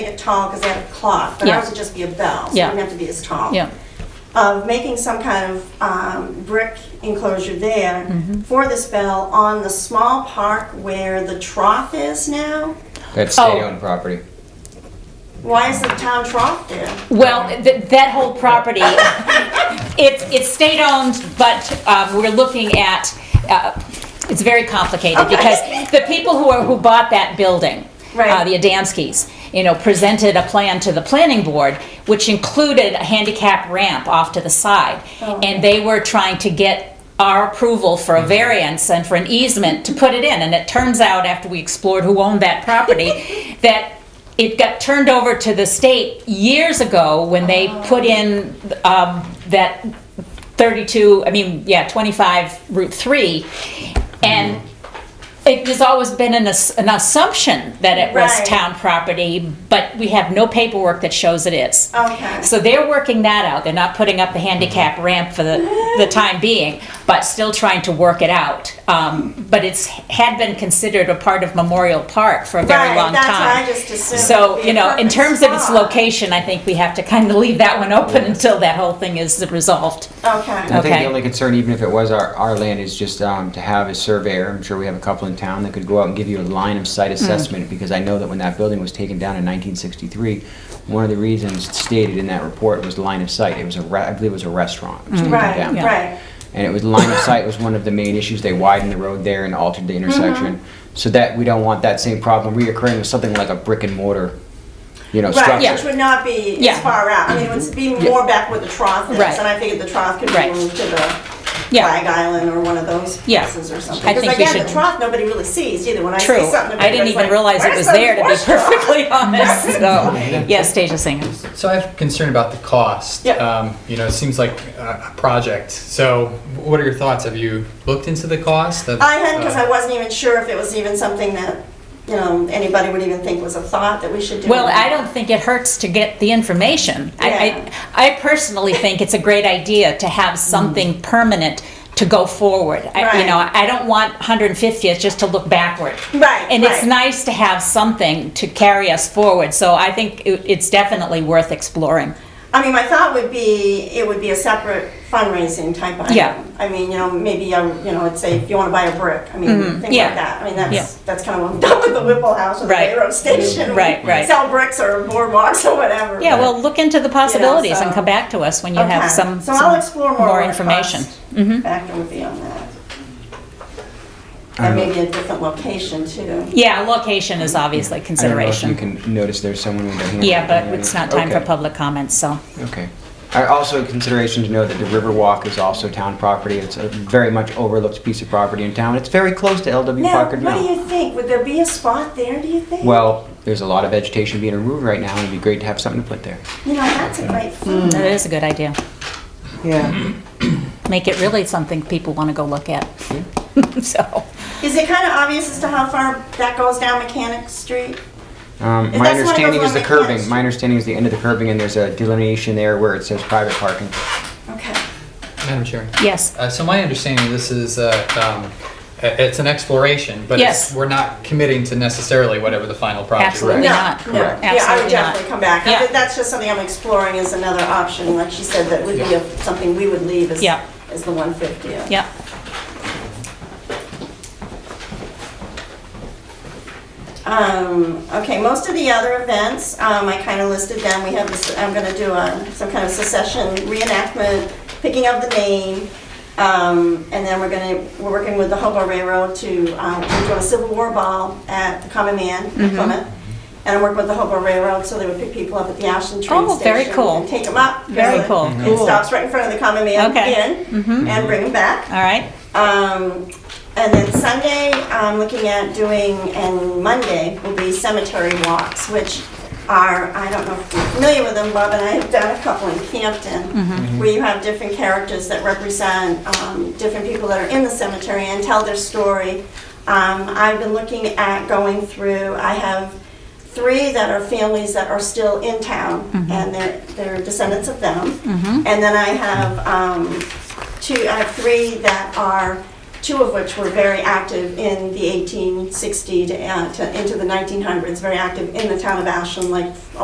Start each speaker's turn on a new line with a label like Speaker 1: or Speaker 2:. Speaker 1: it tall because they have a clock, but ours
Speaker 2: Yeah.
Speaker 1: would just be a bell, so it
Speaker 2: Yeah.
Speaker 1: wouldn't have to be as tall.
Speaker 2: Yeah.
Speaker 1: Of making some kind of um, brick enclosure there
Speaker 2: Mm-hmm.
Speaker 1: for this bell on the small park where the trough is now.
Speaker 3: That's
Speaker 2: Oh.
Speaker 3: state-owned property.
Speaker 1: Why is the town trough there?
Speaker 2: Well, th- that whole property, it's, it's state-owned, but um, we're looking at, uh, it's very complicated because the people who are, who bought that building, uh,
Speaker 1: Right.
Speaker 2: the Adamskis, you know, presented a plan to the planning board, which included a handicap ramp off to the side. And they were trying to get our approval for a variance and for an easement to put it in. And it turns out, after we explored who owned that property, that it got turned over to the state years ago when they put in um, that 32, I mean, yeah, 25 Route 3. And it has always been an, ass- an assumption that it was
Speaker 1: Right.
Speaker 2: town property, but we have no paperwork that shows it is.
Speaker 1: Okay.
Speaker 2: So they're working that out. They're not putting up the handicap ramp for the, the time being, but still trying to work it out. Um, but it's had been considered a part of Memorial Park for a very
Speaker 1: Right,
Speaker 2: long
Speaker 1: that's
Speaker 2: time.
Speaker 1: what I just assumed would
Speaker 2: So,
Speaker 1: be a
Speaker 2: you know, in
Speaker 1: perfect
Speaker 2: terms of its
Speaker 1: spot.
Speaker 2: location, I think we have to kind of leave that one open until that whole thing is resolved.
Speaker 1: Okay.
Speaker 3: I think
Speaker 2: Okay.
Speaker 3: the only concern, even if it was our, our land, is just um, to have a surveyor. I'm sure we have a couple in town that could go out and give you a line of
Speaker 2: Hmm.
Speaker 3: sight assessment, because I know that when that building was taken down in 1963, one of the reasons stated in that report was line of sight. It was a, re- I believe it was a restaurant. It was taken
Speaker 1: Right,
Speaker 3: down.
Speaker 2: Hmm. Yeah.
Speaker 1: right.
Speaker 3: And it was line of sight was one of the main issues. They widened the road there and altered
Speaker 2: Mm-hmm.
Speaker 3: the intersection. So that, we don't want that same problem reoccurring with something like a brick and mortar, you know, structure.
Speaker 1: Right, which would not be as
Speaker 2: Yeah. Mm-hmm.
Speaker 1: far out. I mean, it would be more back where the trough is.
Speaker 2: Right.
Speaker 1: And I figured the trough could be
Speaker 2: Right.
Speaker 1: moved to the
Speaker 2: Yeah.
Speaker 1: Flag Island or one of those
Speaker 2: Yeah.
Speaker 1: places or something.
Speaker 2: I think we
Speaker 1: Because again,
Speaker 2: should-
Speaker 1: the trough, nobody really sees either. When I
Speaker 2: True.
Speaker 1: say something to
Speaker 2: I didn't
Speaker 1: people,
Speaker 2: even
Speaker 1: it's
Speaker 2: realize
Speaker 1: like,
Speaker 2: it was
Speaker 1: "Where's the
Speaker 2: there, to be
Speaker 1: horse trough?"
Speaker 2: perfectly honest, so, yes, Stasia Singer.
Speaker 4: So I have concern about the cost.
Speaker 1: Yeah.
Speaker 4: Um, you know, it seems like a, a project. So what are your thoughts? Have you looked into the cost? Of,
Speaker 1: I hadn't because
Speaker 4: uh,
Speaker 1: I wasn't even sure if it was even something that, you know, anybody would even think was a thought that we should do.
Speaker 2: Well, I don't think it hurts to get the information. I, I, I personally think it's a great idea to have something permanent to go forward. I- You know,
Speaker 1: Mm. Right.
Speaker 2: I don't want 150th just to look backward.
Speaker 1: Right,
Speaker 2: And it's
Speaker 1: right.
Speaker 2: nice to have something to carry us forward, so I think it- it's definitely worth exploring.
Speaker 1: I mean, my thought would be, it would be a separate fundraising type item.
Speaker 2: Yeah.
Speaker 1: I mean, you know, maybe, um, you know, I'd say if you want to buy a brick, I mean, things like
Speaker 2: Mm-hmm. yeah.
Speaker 1: that. I mean,
Speaker 2: Yeah.
Speaker 1: that's, that's kind of what I'm done with the Whipple House or the
Speaker 2: Right.
Speaker 1: railroad station.
Speaker 2: Right,
Speaker 1: We
Speaker 2: right.
Speaker 1: Sell bricks or boardwalks or whatever.
Speaker 2: Yeah, well, look into the possibilities and
Speaker 1: so-
Speaker 2: come back to us when you
Speaker 1: Okay.
Speaker 2: have some,
Speaker 1: So I'll
Speaker 2: some
Speaker 1: explore more. what it
Speaker 2: information. Mm-hmm.
Speaker 1: costs. Factor would be on that. And maybe a different location too.
Speaker 2: Yeah, location is obviously
Speaker 3: I don't know if you
Speaker 2: consideration.
Speaker 3: can notice there's someone with their hand.
Speaker 2: Yeah,
Speaker 3: up.
Speaker 2: but it's not time for
Speaker 3: Okay.
Speaker 2: public comments, so.
Speaker 3: Okay. I- Also, consideration to know that the Riverwalk is also town property. It's a very much overlooked piece of property in town. It's very close to LW
Speaker 1: Now,
Speaker 3: Packard
Speaker 1: what do
Speaker 3: Mill.
Speaker 1: you think? Would there be a spot there, do you think?
Speaker 3: Well, there's a lot of vegetation being removed right now, and it'd be great to have something to put there.
Speaker 1: You know, that's a great thought.
Speaker 2: That is a good idea.
Speaker 3: Yeah.
Speaker 2: Make it really something people want to go look at. So,
Speaker 1: Is it kind of obvious as to how far that goes down Mechanic Street?
Speaker 3: Um,
Speaker 1: If that's one
Speaker 3: my
Speaker 1: of
Speaker 3: understanding
Speaker 1: those
Speaker 3: is the
Speaker 1: one-way
Speaker 3: curving.
Speaker 1: paths.
Speaker 3: My understanding is the end of the curving, and there's a delineation there where it says private parking.
Speaker 1: Okay.
Speaker 4: Madam Chair.
Speaker 2: yes,
Speaker 4: Uh, so my understanding of this is uh, um, i- it's an exploration, but
Speaker 2: Yes.
Speaker 4: it's, we're not committing to necessarily whatever the final project.
Speaker 2: Absolutely.
Speaker 1: No,
Speaker 4: Right.
Speaker 2: not.
Speaker 1: no.
Speaker 2: Correct.
Speaker 1: Yeah, I would
Speaker 2: Absolutely not.
Speaker 1: definitely come back. I
Speaker 2: Yeah.
Speaker 1: think That's just something I'm exploring as another option, like she said, that would be
Speaker 4: Yeah.
Speaker 1: a- something we would leave as,
Speaker 2: Yeah.
Speaker 1: as the 150.
Speaker 2: yep.
Speaker 1: Um, okay, most of the other events, um, I kind of listed them. We have this, I'm gonna do a, some kind of secession reenactment, picking of the name. Um, and then we're gonna, we're working with the Hobo Railroad to, um, we're doing a Civil War ball at the Common Man
Speaker 2: Mm-hmm.
Speaker 1: in Plymouth. And I work with the Hobo Railroad, so they would pick people up at the Ashland train
Speaker 2: Oh,
Speaker 1: station.
Speaker 2: very cool.
Speaker 1: And take them up.
Speaker 2: Very
Speaker 1: Really.
Speaker 2: cool,
Speaker 1: And
Speaker 2: cool.
Speaker 1: It stops right in front of the Common Man
Speaker 2: Okay. Mm-hmm.
Speaker 1: Inn and bring them back.
Speaker 2: All right,
Speaker 1: Um, and then Sunday, I'm looking at doing, and Monday will be cemetery walks, which are, I don't know if you're familiar with them, Bob and I have done a couple in Campton, where you have different characters that represent, um, different people that are in the cemetery and tell their story. Um, I've been looking at going through, I have three that are families that are still in town, and they're, they're descendants of them. And then I have um, two, I have three that are, two of which were very active in the 1860 to, uh, to into the 1900s, very active in the town of Ashland, like